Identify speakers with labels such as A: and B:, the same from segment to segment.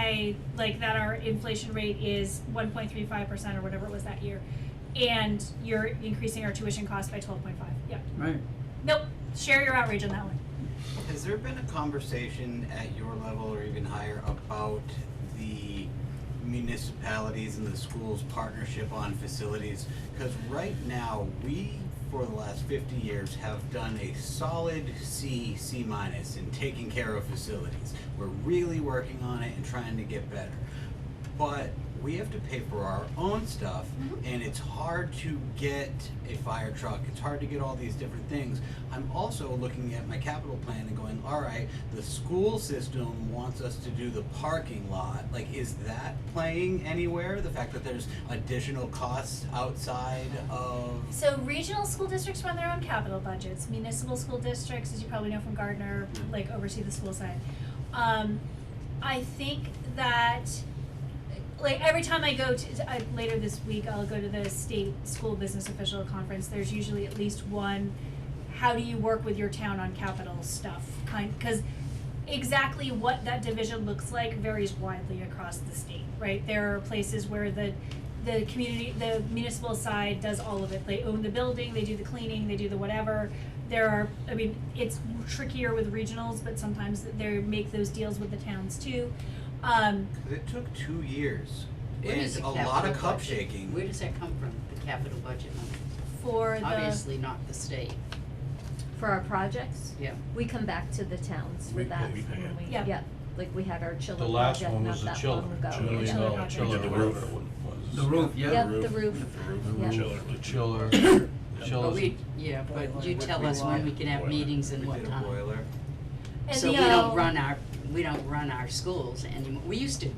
A: say like that our inflation rate is one point three five percent or whatever it was that year, and you're increasing our tuition cost by twelve point five, yep.
B: Right.
A: Nope, share your outrage on that one.
C: Has there been a conversation at your level or even higher about the municipalities and the schools' partnership on facilities? Because right now, we, for the last fifty years, have done a solid C, C minus in taking care of facilities. We're really working on it and trying to get better. But we have to pay for our own stuff,
D: Mm-hmm.
C: and it's hard to get a fire truck. It's hard to get all these different things. I'm also looking at my capital plan and going, all right, the school system wants us to do the parking lot. Like, is that playing anywhere? The fact that there's additional costs outside of.
A: So regional school districts run their own capital budgets. Municipal school districts, as you probably know from Gardner, like oversee the school side. Um, I think that, like, every time I go to, I, later this week, I'll go to the state school business official conference. There's usually at least one, how do you work with your town on capital stuff kind, cause exactly what that division looks like varies widely across the state, right? There are places where the the community, the municipal side does all of it. They own the building, they do the cleaning, they do the whatever. There are, I mean, it's trickier with regionals, but sometimes they make those deals with the towns too. Um,
C: It took two years.
D: Where
C: and
D: does the
C: a lot of
D: capital
C: cup
D: budget-
C: shaking.
D: Where does that come from, the capital budget money?
A: for the,
D: Obviously not the state,
E: for our projects,
D: yeah.
E: we come back to the towns
F: We
E: with that.
F: pay- we pay
E: when
F: it.
E: we-
A: Yeah.
E: like we had our
F: The
E: chiller
F: last
E: project
F: one
E: not
F: was the
E: that
F: chiller,
E: long ago.
A: Yeah.
F: chiller, no,
A: Chiller
F: chiller,
A: project.
F: whatever it was.
B: The roof, yeah.
E: Yep, the roof, yeah.
F: Chiller, the chiller,
D: But
F: chillers,
D: we, yeah, but you
C: Boiler.
D: tell us when we can have
F: Boiler.
D: meetings and
C: We
D: what
C: did a
D: time.
C: boiler.
A: and
D: So
A: the,
D: we don't
A: uh,
D: run our, we don't run our schools anymore. We used to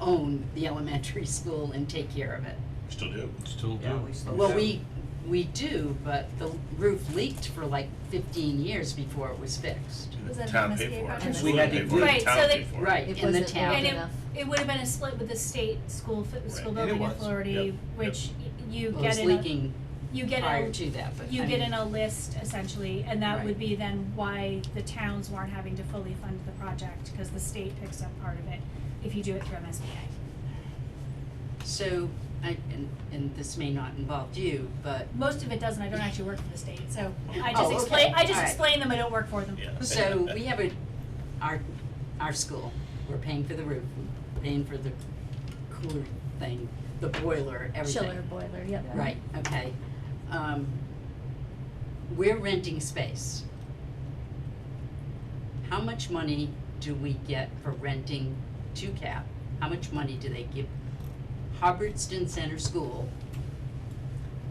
D: own the elementary school and take care of it.
F: still do, still do.
G: Yeah, we still
D: Well,
G: do.
D: we, we do, but the roof leaked for like fifteen years before it was fixed.
A: Was that
F: Town
A: an
F: paid
A: MSBA
F: for it.
A: project?
F: School
G: We had to
F: paid for it.
A: Right, so
F: Town
A: they-
F: paid for it.
D: Right,
E: It
D: in the
E: wasn't
D: town.
A: And it,
E: enough.
A: it would have been a split with the state school, fi- school
F: Right.
C: And it
A: building
C: was.
A: authority,
F: Yep.
A: which y- you
D: Well,
A: get
D: It
A: in
D: was
A: a,
D: leaking
A: you get
D: prior
A: a,
D: to that, but I
A: you get
D: mean-
A: in a list essentially, and that would
D: Right.
A: be then why the towns weren't having to fully fund the project, cause the state picks up part of it if you do it through MSBA.
D: So, I, and, and this may not involve you, but,
A: Most of it doesn't, I don't actually work for the state, so I
D: Oh,
A: just
D: okay.
A: explain, I just
D: Alright.
A: explain them, I don't work for them.
F: Yeah.
D: so we have a, our, our school, we're paying for the roof, we're paying for the cooler thing, the boiler, everything.
E: chiller boiler, yep.
D: Right, okay. Um, we're renting space. How much money do we get for renting to CAP? How much money do they give Hubbardston Center School?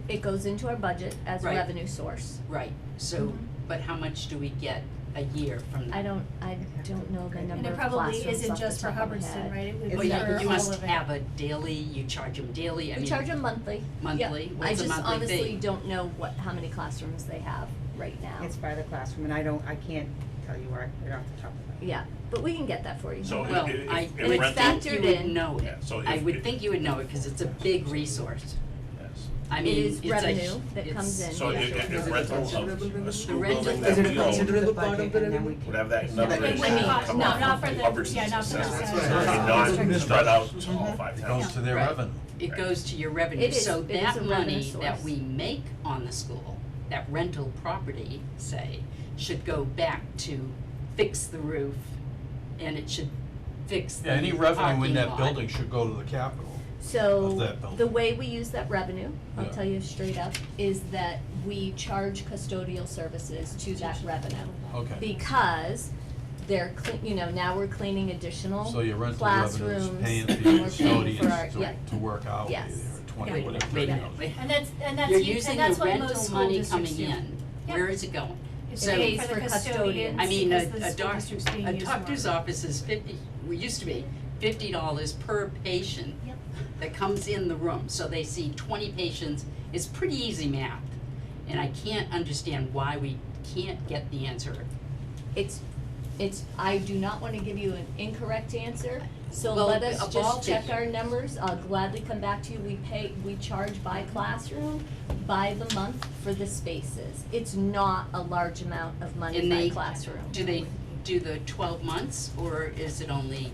E: It goes into our budget as
D: Right.
E: revenue source.
D: Right, so,
A: Mhm.
D: but how much do we get a year from that?
E: I don't, I don't know the
A: And
E: number
A: it
E: of
A: probably
E: classrooms
A: isn't
E: off the
A: just for
E: top of my
A: Hubbardston,
E: head.
A: right, it would be
D: Well,
A: for
E: Is
A: all
E: that-
A: of
D: yeah,
A: it.
D: you must have a daily, you charge them daily, I mean.
E: We charge them monthly, yep.
D: Monthly? What's the
E: I just
D: monthly
E: honestly
D: fee?
E: don't know what, how many classrooms they have right now.
G: It's by the classroom, and I don't, I can't tell you where, I- right off the top of my head.
E: Yeah, but we can get that for you.
F: So
D: Well,
F: If- if-
D: I
F: if
D: would
E: rental-
D: think you would know
F: Yeah,
D: it.
F: so
D: I
F: if-
D: would
F: if-
D: think you would know it, cause it's a big resource.
F: Yes.
D: I
E: It
D: mean,
E: is
D: it's a.
E: revenue
D: hu-
E: that
D: it's-
E: comes in.
F: So
E: Yeah.
F: if, if- if rental of a school
D: rental-
F: building
G: Is
F: that
G: it
F: we own
G: considered in the budget, and then we
F: would
G: can.
F: have that number
C: But it
F: in
C: wouldn't
F: there
C: cost-
F: come
C: no,
F: off
A: not
F: the
A: for the-
F: Hubbardston's
A: yeah, not for the
F: assessment.
C: assessment.
F: So
C: That's
F: it's
G: right.
F: Not spread out to all five
H: It
F: towns.
H: goes to their
D: Right.
H: revenue.
D: It
F: Right.
D: goes to your revenue,
E: It is-
D: so
E: it is a
D: that
E: revenue
D: money that
E: source.
D: we make on the school, that rental property, say, should go back to fix the roof and it should fix the
H: Yeah, any
D: parking
H: revenue in that
D: lot.
H: building should go to the capital. Of
E: So,
H: that building.
E: the way we use that revenue, I'll
H: Yeah.
E: tell you straight up, is that we charge custodial services to that revenue.
H: Okay,
E: Because they're clean, you know, now we're cleaning additional
H: so your rental revenue is
E: classrooms,
H: paying for
E: and
H: your
E: we're paying for our,
H: custodians
E: yeah,
H: to, to work out with you
E: Yes.
H: there, twenty,
A: Yeah.
H: whatever.
D: Wait a
H: it
D: minute,
H: is.
D: wait.
A: And that's, and that's,
D: You're
A: u-
D: using
A: and that's
D: the
A: what most
D: rental
A: school
D: money coming
A: districts do.
D: in,
A: Yeah.
D: where is it going?
A: It's
D: So-
A: paid
E: Pays
A: for the
E: for
A: custodians,
E: custodians.
D: I mean,
A: because
D: a,
A: the
D: a
A: school
D: doctor,
A: district's being
D: a
A: used more.
D: doctor's office is fifty, we used to be fifty dollars per patient
A: Yep.
D: that comes in the room, so they see twenty patients, it's pretty easy math. And I can't understand why we can't get the answer.
E: it's, it's, I do not wanna give you an incorrect answer, so
D: Well,
E: let us
D: a ball
E: just check
D: figure.
E: our numbers, I'll gladly come back to you, we pay, we charge by classroom, by the month for the spaces, it's not a large amount of money
D: And
E: by
D: they-
E: classroom.
D: Do they do the twelve months, or is it only